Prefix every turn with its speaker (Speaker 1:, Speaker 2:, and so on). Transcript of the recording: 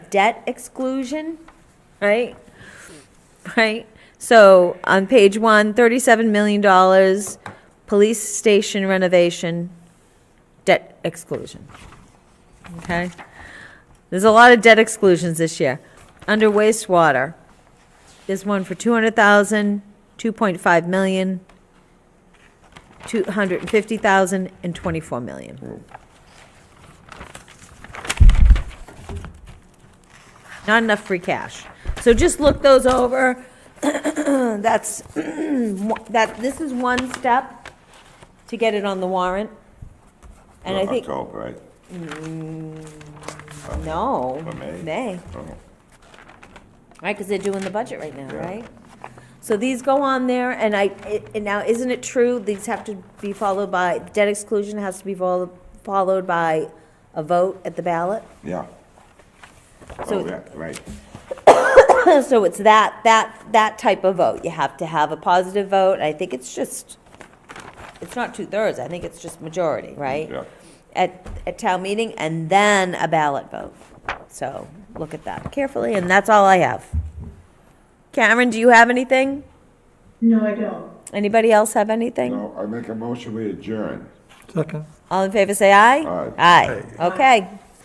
Speaker 1: debt exclusion, right? Right? So on page one, thirty-seven million dollars, police station renovation, debt exclusion. Okay? There's a lot of debt exclusions this year. Under wastewater, there's one for two hundred thousand, two point five million, two hundred and fifty thousand, and twenty-four million. Not enough free cash. So just look those over. That's, that, this is one step to get it on the warrant. And I
Speaker 2: For
Speaker 1: think.
Speaker 2: October, right?
Speaker 1: No,
Speaker 2: For May?
Speaker 1: May,
Speaker 2: Oh,
Speaker 1: right, because they're doing the budget right now,
Speaker 2: Yeah.
Speaker 1: right? So these go on there, and I, it- and now, isn't it true, these have to be followed by, debt exclusion has to be followed, followed by a vote at the ballot?
Speaker 2: Yeah.
Speaker 1: So-
Speaker 2: Oh, yeah, right.
Speaker 1: So it's that, that, that type of vote, you have to have a positive vote, I think it's just, it's not two-thirds, I think it's just majority, right?
Speaker 2: Yeah.
Speaker 1: at, at town meeting and then a ballot vote. So look at that carefully, and that's all I have. Cameron, do you have anything?
Speaker 3: No, I don't.
Speaker 1: Anybody else have anything?
Speaker 2: So I make a motion, we adjourn.
Speaker 4: Second.
Speaker 1: All in favor, say aye.
Speaker 2: Aye.
Speaker 1: Aye. Okay,